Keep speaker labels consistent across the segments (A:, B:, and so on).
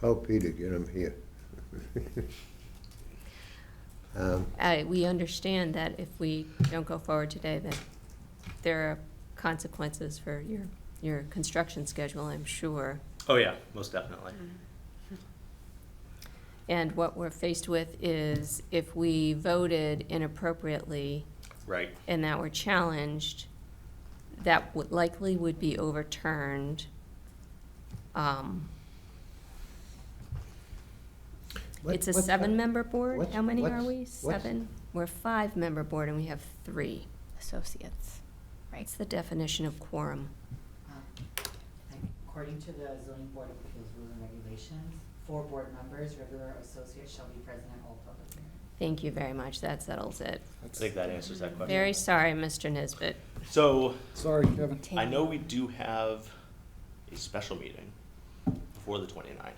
A: Call Peter, get him here. Um,
B: Uh, we understand that if we don't go forward today, that there are consequences for your, your construction schedule, I'm sure.
C: Oh, yeah, most definitely.
B: Mm. And what we're faced with is if we voted inappropriately
C: Right.
B: and that were challenged, that would likely would be overturned. Um,
A: what-
B: It's a
A: what's-
B: seven-member board?
A: what's-
B: How many are
A: what's-
B: we?
A: what's-
B: Seven? We're a five-member board and we have three.
D: associates, right?
B: It's the definition of quorum.
E: Um, According to the zoning board of appeals rules and regulations, four board members, regular or associate, shall be present at all public hearings.
B: Thank you very much. That settles it.
C: I think that answers that question.
B: Very sorry, Mr. Nisbet.
C: So
F: Sorry, Kevin.
C: I know we do have a special meeting before the 29th.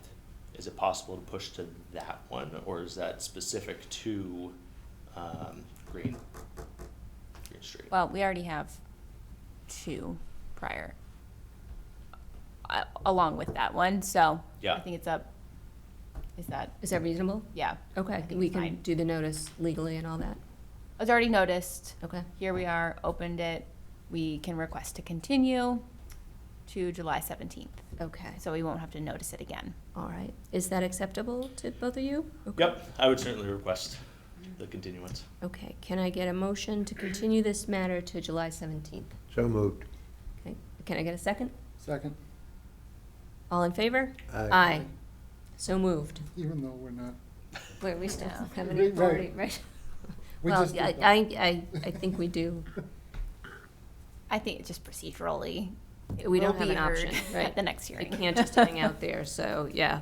C: Is it possible to push to that one, or is that specific to um, Green, Green Street?
D: Well, we already have two prior, uh, along with that one, so. I
C: Yeah.
D: think it's up, is that,
B: Is that reasonable?
D: yeah. I
B: Okay,
D: think
B: we
D: it's
B: can
D: fine.
B: do the notice legally and all that.
D: It's already noticed,
B: Okay.
D: here we are, opened it, we can request to continue to July seventeenth,
B: Okay,
D: so we won't have to notice it again.
B: all right. Is that acceptable to both of you? Okay.
C: Yep, I would certainly request
B: Mm.
C: the continuance.
B: Okay, can I get a motion to continue this matter to July 17th?
A: So moved.
B: Okay, can I get a second?
F: Second,
B: All in favor?
A: Aye.
B: So moved.
F: even though we're not,
B: Wait, we still
D: No.
B: have any
F: Right.
B: authority, right?
F: we
B: Well,
F: just
B: I,
F: did
B: I,
F: that.
B: I I think we do.
D: I think it's just procedurally, it
B: We
D: will
B: don't have
D: be
B: an
D: heard
B: option, right?
D: at the next
B: It
D: hearing.
B: can't just hang out there, so, yeah.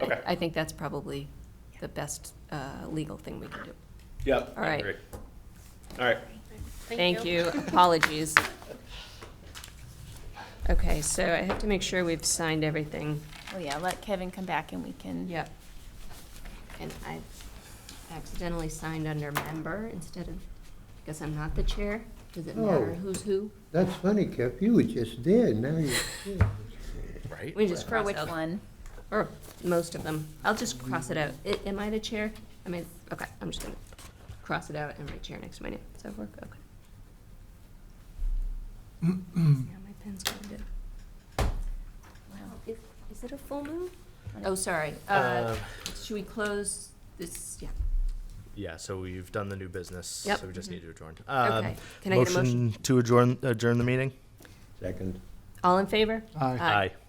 B: I-
C: Okay.
B: I think that's probably the best uh, legal thing we can do.
C: Yep.
B: All right.
C: great. All right.
B: Thank you, apologies. Okay, so I have to make sure we've signed everything.
D: Well, yeah, let Kevin come back and we can.
B: And I accidentally signed under member instead of, because I'm not the chair. Does it matter
A: Oh.
B: who's who?
A: That's funny, Kev, you were just there, now you're here.
C: Right?
B: We just
D: For
B: cross
D: which
B: out,
D: one?
B: or most of them. I'll just cross it out. I- Am I the chair? I mean, okay, I'm just gonna cross it out and write chair next to my name. Does that work? Okay. Yeah, my pen's going to. Wow, is, is it a full moon? Oh, sorry. Uh,
C: Um,
B: Should we close this, yeah,
C: Yeah, so we've done the new business.
B: Yep.
C: So we just need to adjourn. Um,
B: okay. Can I get a um, motion?
C: to adjourn, adjourn the meeting?
A: Second.
B: All in favor?
F: Aye.
C: Aye.